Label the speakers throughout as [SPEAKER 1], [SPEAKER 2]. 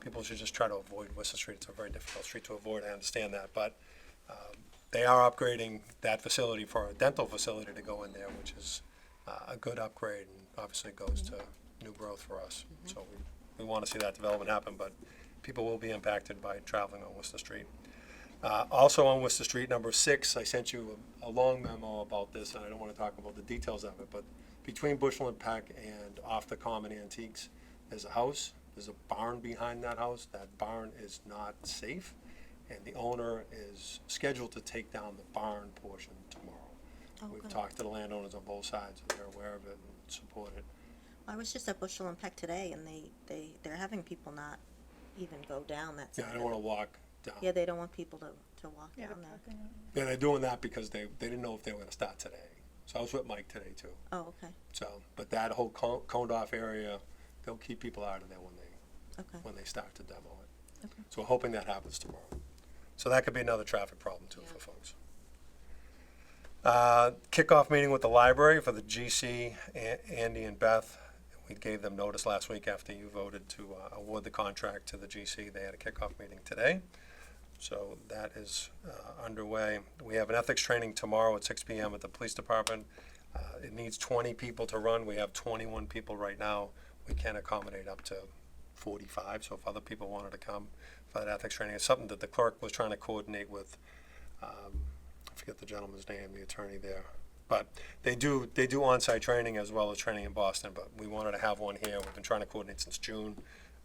[SPEAKER 1] people should just try to avoid Worcester Street. It's a very difficult street to avoid, I understand that, but um, they are upgrading that facility for a dental facility to go in there, which is uh, a good upgrade and obviously goes to new growth for us. So we, we want to see that development happen, but people will be impacted by traveling on Worcester Street. Uh, Also on Worcester Street, number six, I sent you a a long memo about this, and I don't want to talk about the details of it, but between Bushel and Peck and off the Common Antiques, there's a house, there's a barn behind that house. That barn is not safe, and the owner is scheduled to take down the barn portion
[SPEAKER 2] Oh,
[SPEAKER 1] tomorrow. We've
[SPEAKER 2] good.
[SPEAKER 1] talked to the landowners on both sides, and they're aware of it and support it.
[SPEAKER 2] I was just at Bushel and Peck today, and they, they, they're having people not even go down that
[SPEAKER 1] Yeah, I
[SPEAKER 2] side.
[SPEAKER 1] don't
[SPEAKER 2] of
[SPEAKER 1] want to
[SPEAKER 2] it.
[SPEAKER 1] walk
[SPEAKER 2] Yeah,
[SPEAKER 1] down.
[SPEAKER 2] they don't want people to, to walk down there.
[SPEAKER 1] Yeah, they're doing that because they, they didn't know if they were going to start today. So I was with Mike today, too.
[SPEAKER 2] Oh, okay,
[SPEAKER 1] So, but that whole co- coned off area, they'll keep people out of there when they,
[SPEAKER 2] okay.
[SPEAKER 1] when they start to demo it.
[SPEAKER 2] Okay.
[SPEAKER 1] So we're hoping that happens tomorrow. So that could be another traffic problem too for folks. Uh, kickoff meeting with the library for the GC, A- Andy and Beth. We gave them notice last week after you voted to uh, award the contract to the GC. They had a kickoff meeting today. So that is uh, underway. We have an ethics training tomorrow at six PM at the police department. Uh, It needs 20 people to run. We have 21 people right now. We can accommodate up to 45, so if other people wanted to come for that ethics training, it's something that the clerk was trying to coordinate with, um, I forget the gentleman's name, the attorney there. But they do, they do on-site training as well as training in Boston, but we wanted to have one here. We've been trying to coordinate since June,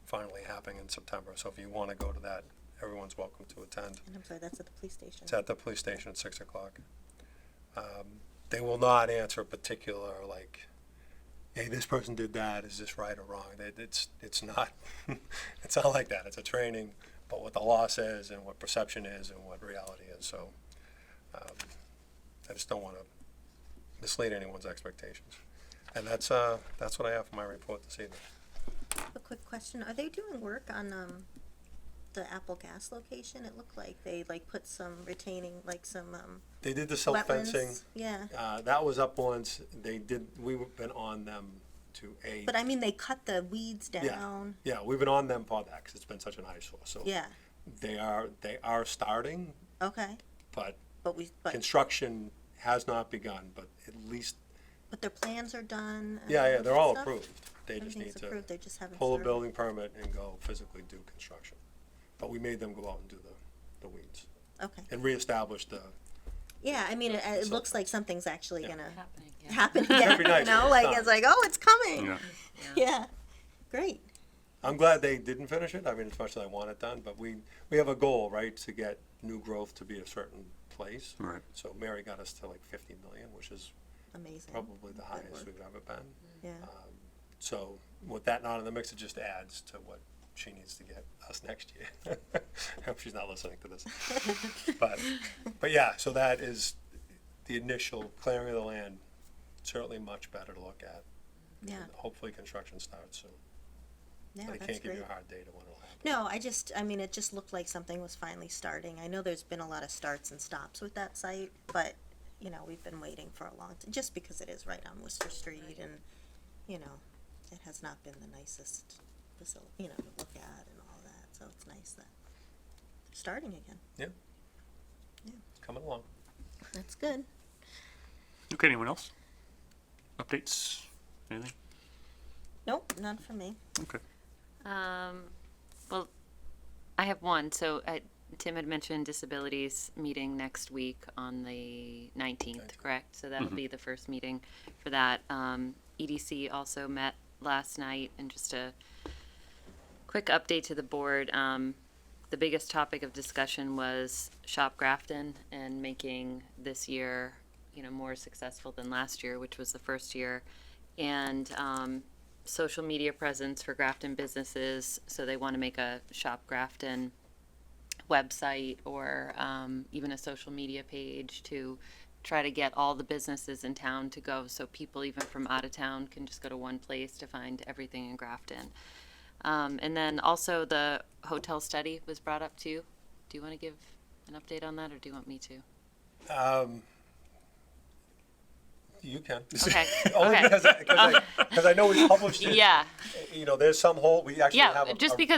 [SPEAKER 1] finally happening in September. So if you want to go to that, everyone's welcome to attend.
[SPEAKER 2] And I'm sorry, that's at the police station.
[SPEAKER 1] It's at the police station at six o'clock. Um, They will not answer a particular, like, hey, this person did that, is this right or wrong? They- It's, it's not, it's not like that. It's a training, but what the law says and what perception is and what reality is, so. um, I just don't wanna mislead anyone's expectations. And that's, uh, that's what I have for my report this evening.
[SPEAKER 2] A quick question, are they doing work on, um, the Apple Gas location? It looked like they, like, put some retaining, like, some, um,
[SPEAKER 1] They did the silt fencing.
[SPEAKER 2] wetlands. Yeah,
[SPEAKER 1] Uh, that was up once. They did, we've been on them to a.
[SPEAKER 2] but I mean, they cut the weeds down.
[SPEAKER 1] Yeah, we've been on them for that because it's been such an eyesore. So
[SPEAKER 2] Yeah,
[SPEAKER 1] they are they are starting,
[SPEAKER 2] okay,
[SPEAKER 1] but
[SPEAKER 2] but we, but,
[SPEAKER 1] construction has not begun. But at least
[SPEAKER 2] but their plans are done. and
[SPEAKER 1] yeah, yeah, they're all
[SPEAKER 2] stuff?
[SPEAKER 1] approved. They just need
[SPEAKER 2] Everything's
[SPEAKER 1] to
[SPEAKER 2] approved, they just haven't
[SPEAKER 1] pull a
[SPEAKER 2] started.
[SPEAKER 1] building permit and go physically do construction. But we made them go out and do the the weeds
[SPEAKER 2] Okay,
[SPEAKER 1] and reestablish the.
[SPEAKER 2] yeah, I mean, it, it
[SPEAKER 1] So-
[SPEAKER 2] looks like something's actually
[SPEAKER 1] Yeah.
[SPEAKER 2] gonna
[SPEAKER 3] happening. Yeah.
[SPEAKER 2] happen
[SPEAKER 1] That'd
[SPEAKER 2] again.
[SPEAKER 1] be nice
[SPEAKER 2] you know,
[SPEAKER 1] when
[SPEAKER 2] like
[SPEAKER 1] it's
[SPEAKER 2] it's like, oh, it's coming. Yeah.
[SPEAKER 4] Yeah.
[SPEAKER 2] great.
[SPEAKER 1] I'm glad they didn't finish it. I mean, as much as I want it done, but we we have a goal, right, to get new growth to be a certain place.
[SPEAKER 4] Right.
[SPEAKER 1] So Mary got us to like 50 million, which is
[SPEAKER 2] Amazing.
[SPEAKER 1] probably the highest
[SPEAKER 2] work.
[SPEAKER 1] we've ever been.
[SPEAKER 2] Yeah.
[SPEAKER 1] So with that not in the mix, it just adds to what she needs to get us next year. I hope she's not listening to this. But, but yeah, so that is the initial clearing of the land, certainly much better to look at.
[SPEAKER 2] Yeah.
[SPEAKER 1] And Hopefully, construction starts soon.
[SPEAKER 2] Yeah,
[SPEAKER 1] But I
[SPEAKER 2] that's
[SPEAKER 1] can't give
[SPEAKER 2] great.
[SPEAKER 1] you a hard date of when it'll happen.
[SPEAKER 2] No, I just, I mean, it just looked like something was finally starting. I know there's been a lot of starts and stops with that site, but, you know, we've been waiting for a long, t- just because it is right on Worcester Street and, you know, it has not been the nicest facility, you know, to look at and all that, so it's nice that they're starting again.
[SPEAKER 1] Coming along.
[SPEAKER 2] That's good.
[SPEAKER 4] Okay, anyone else? Updates? Anything?
[SPEAKER 2] Nope, none for me.
[SPEAKER 4] Okay.
[SPEAKER 3] Um, well, I have one. So uh, Tim had mentioned disabilities meeting next week on the 19th, correct? So that'll be the first meeting for that. Um, EDC also met last night and just a quick update to the board. Um, the biggest topic of discussion was Shop Grafton and making this year, you know, more successful than last year, which was the first year. And, um, social media presence for Grafton businesses. So they want to make a Shop Grafton website or um, even a social media page to try to get all the businesses in town to go so people even from out of town can just go to one place to find everything in Grafton. Um, and then also the hotel study was brought up too. Do you want to give an update on that or do you want me to?
[SPEAKER 1] Um, you can.
[SPEAKER 3] Okay,
[SPEAKER 1] Only
[SPEAKER 3] okay.
[SPEAKER 1] because I, because I, because I know we published it.
[SPEAKER 3] Yeah,
[SPEAKER 1] You know, there's some hole, we actually have.
[SPEAKER 3] yeah,
[SPEAKER 1] a-
[SPEAKER 3] just
[SPEAKER 1] a-
[SPEAKER 3] because